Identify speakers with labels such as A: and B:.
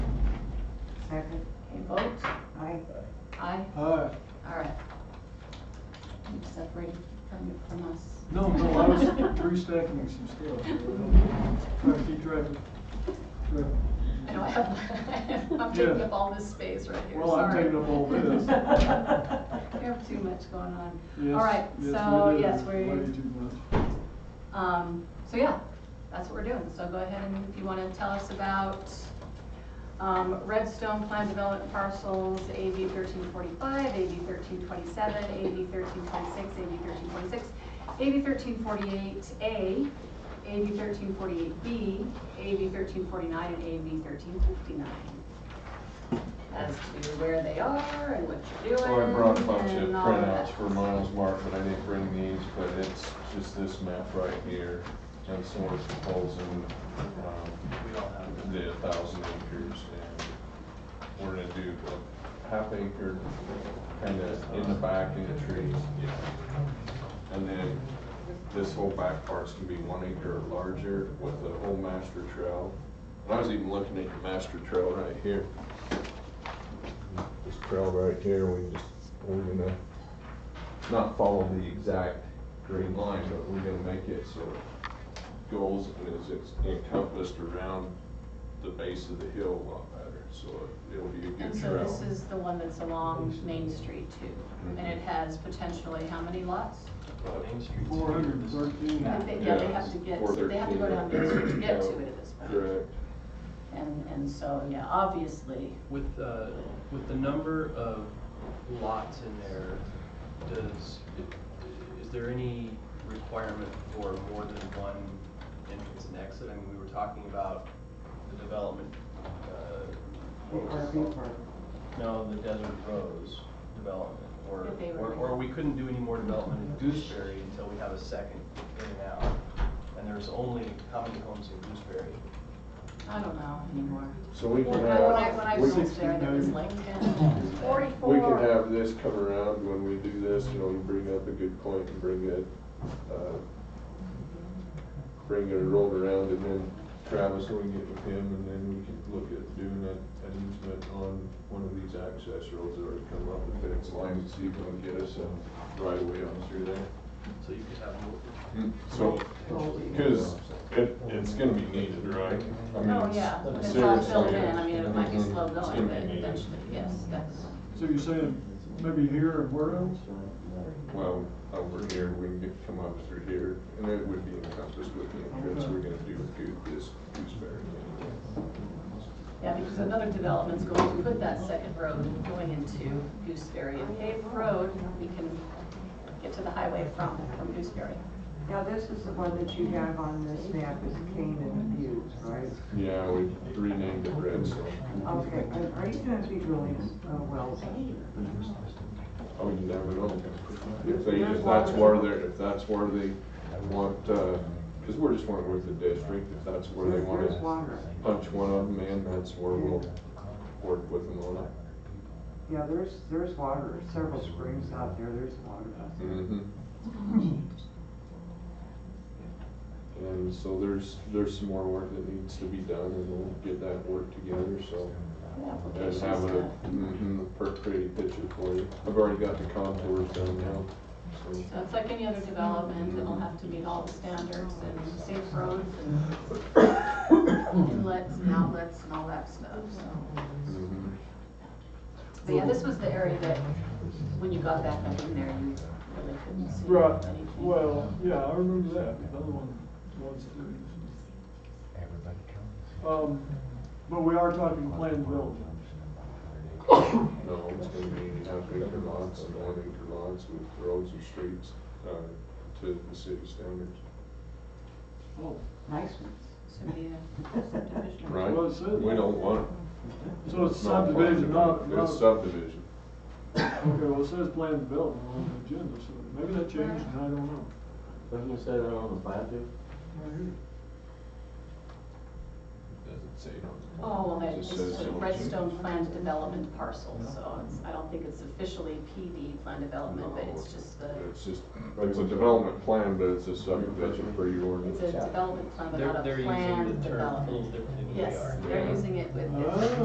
A: vote?
B: Aye.
A: Aye,
C: Uh,
A: all right. You separated from, from us.
C: no, no, I was restacking some stuff. Trying to keep track of, track of-
A: I know I have, I'm taking up all this space right here, sorry.
C: Well, I'm taking up all this.
A: We have too much going on.
C: Yes,
A: All right,
C: yes,
A: so,
C: we do.
A: yes,
C: Way
A: we're,
C: too much.
A: um, so yeah, that's what we're doing. So go ahead and if you want to tell us about, um, Redstone Plan Development Parcels, AB thirteen forty-five, AB thirteen twenty-seven, AB thirteen twenty-six, AB thirteen twenty-six, AB thirteen forty-eight A, AB thirteen forty-eight B, AB thirteen forty-nine, and AB thirteen fifty-nine. As to where they are and what you're doing.
D: Well, I brought a bunch of
A: and all that.
D: printouts for Miles Mark, but I didn't bring these, but it's just this map right here. And so we're proposing, um, the thousand acres and we're gonna do a half acre kinda in the back in the trees. And then this whole back part's gonna be one acre or larger with the whole master trail. And I was even looking at the master trail right here. This trail right here, we just, we're gonna not follow the exact green line, but we're gonna make it so it goes and is it's encompassed around the base of the hill a lot better, so it- it'll be a
A: And
D: good
A: so
D: trail. Mm-hmm.
A: this is the one that's along Main Street too, and it has potentially how many lots?
C: Four hundred and thirteen.
A: I think, yeah, they
D: Yeah,
A: have to get,
D: or
A: they have to go down Main
D: thirteen.
A: Street to get to it at this point.
D: Correct.
A: And, and so, yeah, obviously,
E: With, uh, with the number of lots in there, does, is there any requirement for more than one entrance and exit? I mean, we were talking about the development, uh, what was it
B: RV
E: called?
B: park.
E: no, the Desert Rose development, or,
A: If they were-
E: or, or we couldn't do any more development in Gooseberry until we have a second in and out. And there's only, how many homes in Gooseberry?
A: I don't know anymore.
D: So we
A: When
D: can
A: I, when I- when I
D: have, we
A: was
D: can,
A: there, there was like ten.
D: we can have this come around when we do this, you know, you bring up a good point and bring it, uh, bring it rolled around and then Travis will get with him and then we can look at doing a- an easement on one of these access roads that already come up and fix lines, so you can get us a right away on through there.
E: So you could have more.
D: So, cause it, it's gonna be needed, right? I mean,
A: Oh,
D: it's-
A: yeah, when it's all built
D: seriously,
A: in, I mean, it might be slow going,
D: it's
A: but
D: gonna be needed.
A: eventually, yes, that's,
C: So you're saying maybe here and where else?
D: Well, over here, we can get- come up through here, and it would be encompassed with the entrance we're gonna do with Goose, this Gooseberry. anyway.
A: yeah, because another development's going to put that second road going into Gooseberry. And paved road, we can get to the highway from, from Gooseberry.
B: Now, this is the one that you have on this map is Canaan Views, right?
D: Yeah, we renamed it Redstone.
B: Okay, are- are you gonna be drilling uh, wells?
D: Oh, you never know. If they, if that's where they're, if that's where they want, uh, cause we're just working with the district, if that's where they want
B: There's
D: to
B: water.
D: punch one of them in, that's where we'll work with them on it.
B: Yeah, there's, there's water, several springs out there, there's water.
D: Mhm. And so there's, there's some more work that needs to be done and we'll get that work together, so. And
A: Application's
D: have a,
A: done.
D: mhm, a per- pretty picture for you. I've already got the contours done now, so.
A: So it's like any other development, it'll have to meet all the standards and safe roads and inlets and outlets and all that stuff, so.
D: mhm.
A: But yeah, this was the area that, when you got back up in there, you really couldn't see
C: Right,
A: anything.
C: well, yeah, I remember that, the other one was too.
F: Everybody comes.
C: Um, but we are talking planned development.
D: No, it's gonna be half acre lots and one acre lots with roads and streets, uh, to the city standards.
C: Oh,
B: Nice ones.
A: So, yeah, subdivision.
D: Right?
C: Well, it says-
D: We don't want.
C: so it's
D: not
C: subdivision, not, not, okay,
D: It's subdivision.
C: well, it says planned development on the agenda, so maybe that changed and I don't know.
G: Doesn't it say that on the plat too?
C: Right here.
D: Doesn't say it on the plan.
A: Oh, well, that
D: It
A: is
D: just says it'll change.
A: Redstone Planned Development Parcel, so it's, I don't think it's officially PD Planned Development, but it's just the,
D: It's just, it's a development plan, but it's a subdivision for your
A: it's
D: ordinance.
A: a development plan, but
E: They're-
A: not a
E: They're
A: planned
E: using the term a little
A: development.
E: differently than we are.
A: Yes, they're using it with.
C: Oh.